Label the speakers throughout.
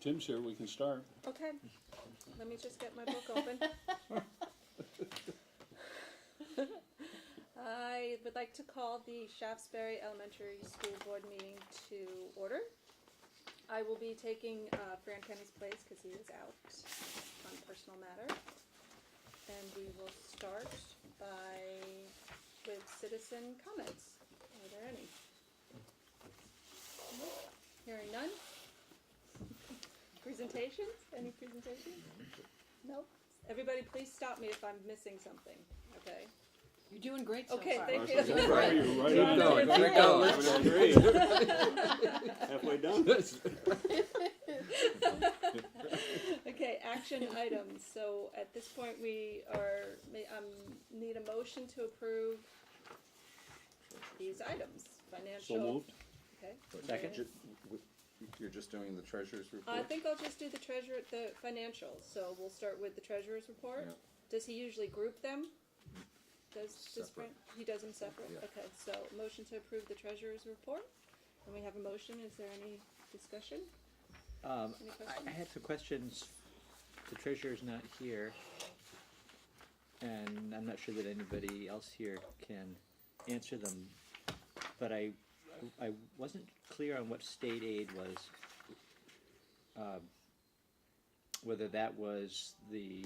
Speaker 1: Tim's here, we can start.
Speaker 2: Okay, let me just get my book open. I would like to call the Shaftesbury Elementary School Board meeting to order. I will be taking uh, Fran Kenny's place because he is out on personal matter. And we will start by, with citizen comments. Are there any? Hearing none? Presentations? Any presentations? No? Everybody, please stop me if I'm missing something, okay?
Speaker 3: You're doing great so
Speaker 2: Okay,
Speaker 3: far.
Speaker 2: thank you.
Speaker 1: Right on you, right
Speaker 4: Keep
Speaker 1: on.
Speaker 4: going, keep
Speaker 1: Right on. Great. Halfway done.
Speaker 2: Okay, action items, so at this point, we are, may, um, need a motion to approve these items, financial.
Speaker 1: So moved.
Speaker 2: Okay.
Speaker 4: Second. You're just doing the treasurer's report?
Speaker 2: I think I'll just do the treasurer, the financials, so we'll start with the treasurer's report.
Speaker 4: Yeah.
Speaker 2: Does he usually group them? Does, does
Speaker 4: Separate.
Speaker 2: Fran- he does them separate?
Speaker 4: Yeah.
Speaker 2: Okay, so motion to approve the treasurer's report, and we have a motion, is there any discussion?
Speaker 5: Um,
Speaker 2: Any
Speaker 5: I- I
Speaker 2: questions?
Speaker 5: had some questions. The treasurer's not here. And I'm not sure that anybody else here can answer them. But I, I wasn't clear on what state aid was. Um, Whether that was the,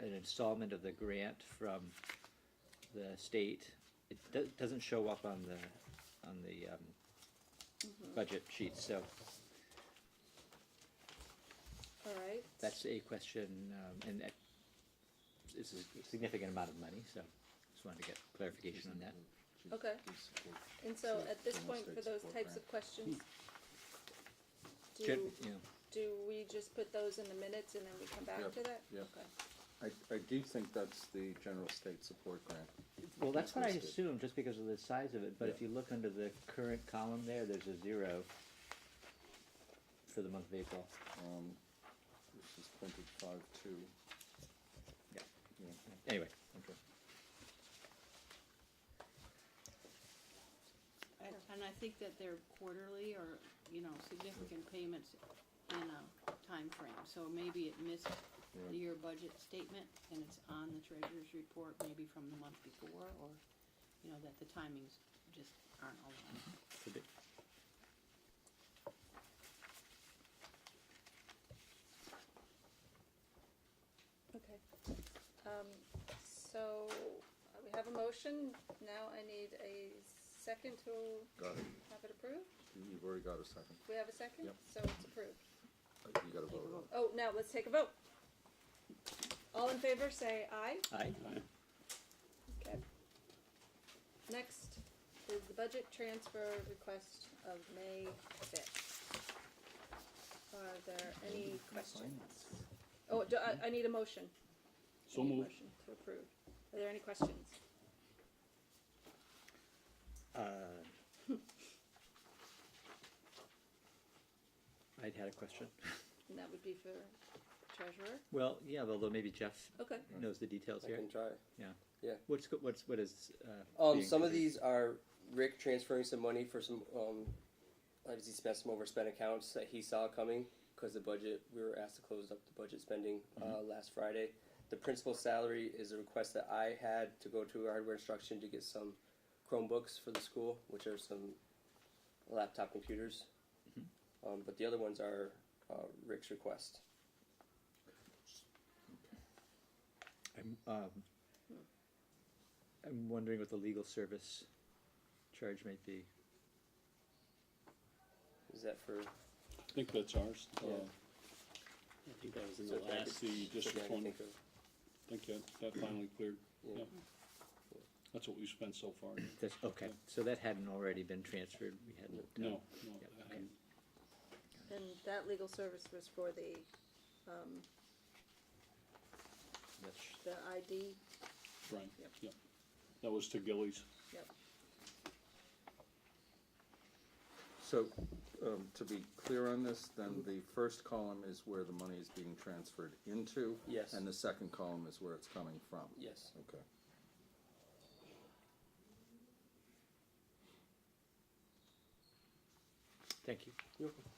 Speaker 5: an installment of the grant from the state. It do- doesn't show up on the, on the, um, budget sheet, so
Speaker 2: All right.
Speaker 5: That's a question, um, and that, it's a significant amount of money, so just wanted to get clarification on that.
Speaker 2: Okay. And so at this point, for those types of questions, do,
Speaker 5: Gen- yeah.
Speaker 2: do we just put those in the minutes and then we come
Speaker 4: Yeah,
Speaker 2: back to that?
Speaker 4: yeah.
Speaker 2: Okay.
Speaker 4: I, I do think that's the general state support grant.
Speaker 5: Well, that's what I
Speaker 4: Listed.
Speaker 5: assumed, just because of the size of it, but if
Speaker 4: Yeah.
Speaker 5: you look under the current column there, there's a zero for the month of April.
Speaker 4: Um, This is printed five two.
Speaker 5: Yeah.
Speaker 4: Yeah,
Speaker 5: Anyway,
Speaker 4: okay.
Speaker 3: I- And I think that they're quarterly or, you know, significant payments in a time frame. So maybe it missed the
Speaker 4: Yeah.
Speaker 3: year budget statement and it's on the treasurer's report, maybe from the month before, or, you know, that the timings just aren't aligned.
Speaker 5: could be.
Speaker 2: Okay. Um, so uh, we have a motion. Now I need a second to
Speaker 4: Got it.
Speaker 2: have it approved.
Speaker 4: You- You've already got a second.
Speaker 2: We have a second?
Speaker 4: Yep.
Speaker 2: So it's approved.
Speaker 4: Uh, You gotta vote on it.
Speaker 2: Oh, now let's take a vote. All in favor, say aye.
Speaker 5: Aye,
Speaker 2: Okay. Next is the budget transfer request of May fifth. Are there any questions? Oh, do, I, I need a motion.
Speaker 1: So
Speaker 2: I need a
Speaker 1: moved.
Speaker 2: motion To approve. Are there any questions?
Speaker 5: Uh, I'd had a question.
Speaker 2: And that would be for treasurer.
Speaker 5: Well, yeah, although maybe Jeff
Speaker 2: Okay,
Speaker 5: knows the details
Speaker 6: I
Speaker 5: here.
Speaker 6: can try.
Speaker 5: Yeah.
Speaker 6: Yeah.
Speaker 5: What's go- what's what is? Uh,
Speaker 6: Um,
Speaker 5: being
Speaker 6: some of
Speaker 5: considered?
Speaker 6: these are Rick transferring some money for some. Um, obviously, spent some overspent accounts that he saw coming because the budget. We were asked to close up the budget spending uh, last Friday. The principal salary is a request that I had to go to hardware instruction to get some Chromebooks for the school, which are some laptop computers. Um, but the other ones are uh, Rick's request.
Speaker 5: I'm, um, I'm wondering what the legal service charge might be.
Speaker 6: Is that for?
Speaker 1: I think that's ours. Uh,
Speaker 6: Yeah.
Speaker 7: I think that was in
Speaker 6: is
Speaker 7: the
Speaker 6: that-
Speaker 1: That's
Speaker 7: last,
Speaker 1: the
Speaker 6: is that what
Speaker 1: district
Speaker 6: I
Speaker 1: one.
Speaker 6: think
Speaker 1: I
Speaker 6: of?
Speaker 1: think that, that finally cleared.
Speaker 6: Yeah.
Speaker 1: Yeah. That's what we spent so far.
Speaker 5: That's, okay, so that hadn't already been transferred, we hadn't. uh,
Speaker 1: No, no,
Speaker 5: Yeah,
Speaker 1: I
Speaker 5: okay.
Speaker 1: hadn't.
Speaker 2: and that legal service was for the, um,
Speaker 5: that's-
Speaker 2: the ID,
Speaker 1: Right,
Speaker 2: Yep.
Speaker 1: yep. That was to Gillies.
Speaker 2: yep.
Speaker 4: So, um, to be clear on this, then the first column is where the money is being transferred into.
Speaker 6: Yes.
Speaker 4: And the second column is where it's coming from.
Speaker 6: Yes.
Speaker 4: Okay.
Speaker 5: Thank you.
Speaker 6: You're welcome.